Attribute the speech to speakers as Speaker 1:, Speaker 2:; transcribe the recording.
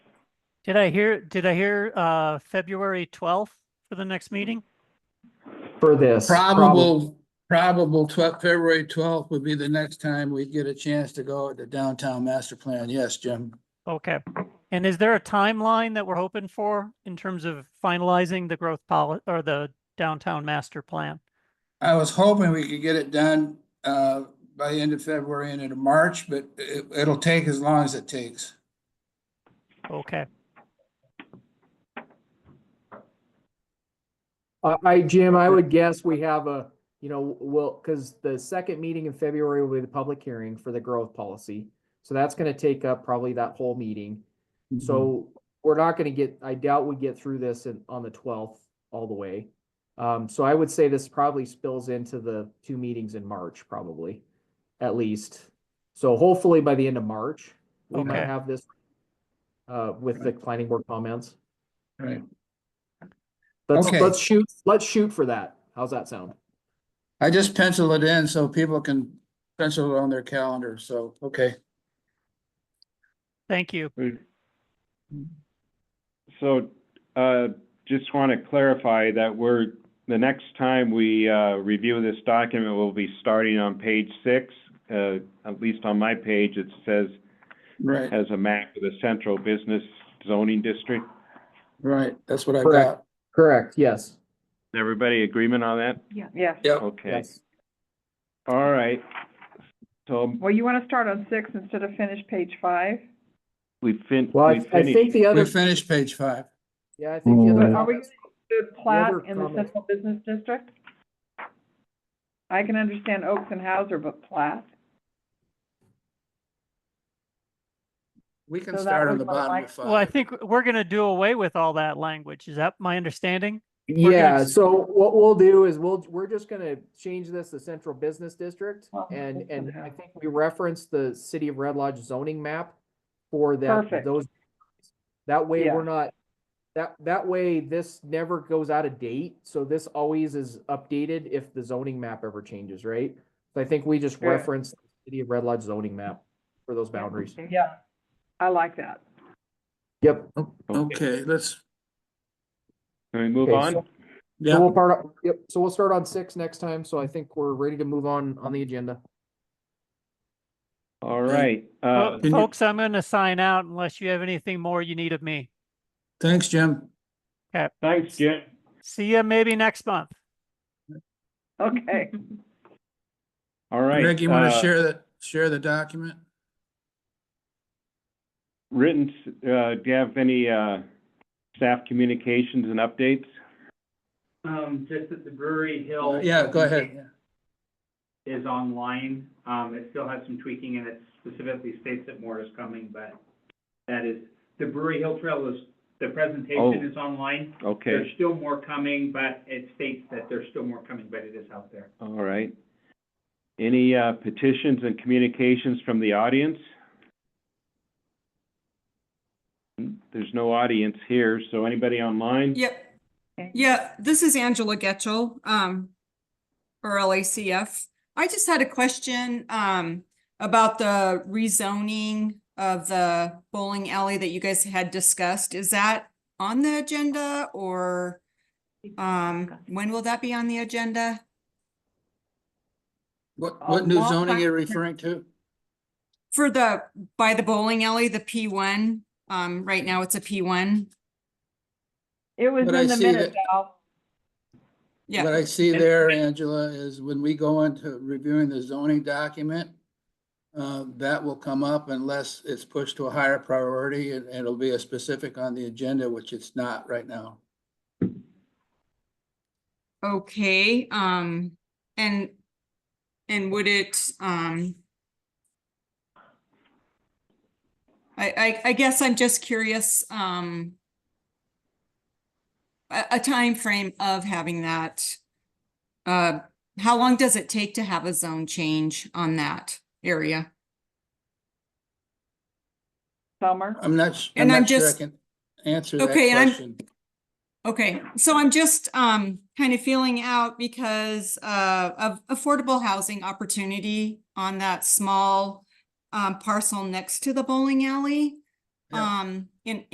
Speaker 1: Did I hear, did I hear, uh, February twelfth for the next meeting?
Speaker 2: for this. prob-
Speaker 3: Probable, probable twelve, February twelfth would be the next time we'd get a chance to go at the downtown master plan. Yes, Jim.
Speaker 1: Okay. And is there a timeline that we're hoping for in terms of finalizing the growth policy or the downtown master plan?
Speaker 3: I was hoping we could get it done uh by the end of February and into March, but it it'll take as long as it takes.
Speaker 1: Okay,
Speaker 2: I, I, Jim, I would guess we have a, you know, well, because the second meeting in February will be the public hearing for the growth policy. So that's gonna take up probably that whole meeting. So we're not gonna get, I doubt we get through this in, on the twelfth all the way. Um, so I would say this probably spills into the two meetings in March, probably, at least. So hopefully by the end of March, we might
Speaker 1: Okay.
Speaker 2: have this uh, with the planning board comments.
Speaker 3: Right.
Speaker 2: Let's,
Speaker 3: Okay.
Speaker 2: let's shoot, let's shoot for that. How's that sound?
Speaker 3: I just pencil it in so people can pencil it on their calendar. So, okay.
Speaker 1: thank you.
Speaker 4: We- So, uh, just want to clarify that we're, the next time we, uh, review this document, we'll be starting on page six. Uh, at least on my page, it says,
Speaker 3: Right,
Speaker 4: has a map of the central business zoning district.
Speaker 3: right. That's what I got.
Speaker 2: Correct. Correct, yes.
Speaker 4: Everybody agreement on that?
Speaker 5: Yeah. Yes.
Speaker 3: Yep.
Speaker 4: Okay, all right. So
Speaker 5: Well, you want to start on six instead of finish page five?
Speaker 4: we fin-
Speaker 2: Well, I,
Speaker 4: we
Speaker 2: I think
Speaker 4: finished.
Speaker 2: the
Speaker 3: We
Speaker 2: other,
Speaker 3: finished page five.
Speaker 2: yeah, I think the
Speaker 5: But are
Speaker 2: other,
Speaker 5: we going to do plat
Speaker 2: Never
Speaker 5: in the
Speaker 2: comment.
Speaker 5: central business district? I can understand Oaks and Hauser, but plat?
Speaker 3: We can
Speaker 5: So that
Speaker 3: start on
Speaker 5: was
Speaker 3: the
Speaker 5: my
Speaker 3: bottom
Speaker 5: like-
Speaker 3: of
Speaker 1: Well, I
Speaker 3: five.
Speaker 1: think we're gonna do away with all that language. Is that my understanding? gonna
Speaker 2: yeah,
Speaker 1: s-
Speaker 2: so what we'll do is we'll, we're just gonna change this to central business district.
Speaker 5: Well,
Speaker 2: And,
Speaker 5: that's
Speaker 2: and
Speaker 5: gonna
Speaker 2: I
Speaker 5: happen.
Speaker 2: think we reference the city of Red Lodge zoning map for that,
Speaker 5: Perfect.
Speaker 2: those. That way
Speaker 5: Yeah.
Speaker 2: we're not, that, that way this never goes out of date, so this always is updated if the zoning map ever changes, right? So I think we just
Speaker 5: Sure.
Speaker 2: reference the city of Red Lodge zoning map for those boundaries.
Speaker 5: Yeah. I like that.
Speaker 2: Yep.
Speaker 4: Okay,
Speaker 3: Okay, let's,
Speaker 4: can we move
Speaker 2: Okay,
Speaker 4: on?
Speaker 2: so- So
Speaker 3: yeah,
Speaker 2: we'll part, yep, so we'll start on six next time, so I think we're ready to move on, on the agenda.
Speaker 4: All right,
Speaker 1: Well,
Speaker 4: uh,
Speaker 3: can you-
Speaker 1: Folks, I'm gonna sign out unless you have anything more you need of me.
Speaker 3: thanks, Jim.
Speaker 4: thanks, Jim.
Speaker 1: See you maybe next month.
Speaker 5: Okay.
Speaker 4: All right.
Speaker 3: Greg, you want to
Speaker 4: uh,
Speaker 3: share that, share the document?
Speaker 4: written, s- uh, do you have any, uh, staff communications and updates?
Speaker 6: Um, just that the Brewery Hill.
Speaker 3: Uh, Yeah, go ahead.
Speaker 6: Is online. Um, it still has some tweaking and it specifically states that more is coming, but that is, the Brewery Hill Trail is, the
Speaker 4: Oh.
Speaker 6: presentation is online.
Speaker 4: Okay,
Speaker 6: There's still more coming, but it states that there's still more coming, but it is out there.
Speaker 4: all right. Any, uh, petitions and communications from the audience? There's no audience here, so anybody online?
Speaker 7: Yep.
Speaker 5: Okay.
Speaker 7: Yeah, this is Angela Getchell, um, or LACF. I just had a question, um, about the rezoning of the bowling alley that you guys had discussed. Is that on the agenda or, um, when will that be on the agenda?
Speaker 3: What,
Speaker 5: Uh,
Speaker 3: what new
Speaker 5: law
Speaker 3: zoning
Speaker 5: practice-
Speaker 3: are you referring to?
Speaker 7: For the, by the bowling alley, the P one, um, right now it's a P one.
Speaker 5: It was
Speaker 3: But I
Speaker 5: in the
Speaker 3: see
Speaker 5: minutes,
Speaker 3: that-
Speaker 5: Al.
Speaker 7: Yeah.
Speaker 3: What I see there, Angela, is when we go into reviewing the zoning document, uh, that will come up unless it's pushed to a higher priority and and it'll be a specific on the agenda, which it's not right now.
Speaker 7: Okay, um, and, and would it, um, I, I, I guess I'm just curious, um, a, a timeframe of having that. Uh, how long does it take to have a zone change on that area?
Speaker 5: Summer.
Speaker 3: I'm not, s- I'm
Speaker 7: And I'm
Speaker 3: not sure I
Speaker 7: just-
Speaker 3: can answer that
Speaker 7: Okay, and I'm-
Speaker 3: question.
Speaker 7: Okay, so I'm just, um, kind of feeling out because, uh, of affordable housing opportunity on that small, um, parcel next to the bowling alley.
Speaker 3: Yeah.
Speaker 7: Um, in,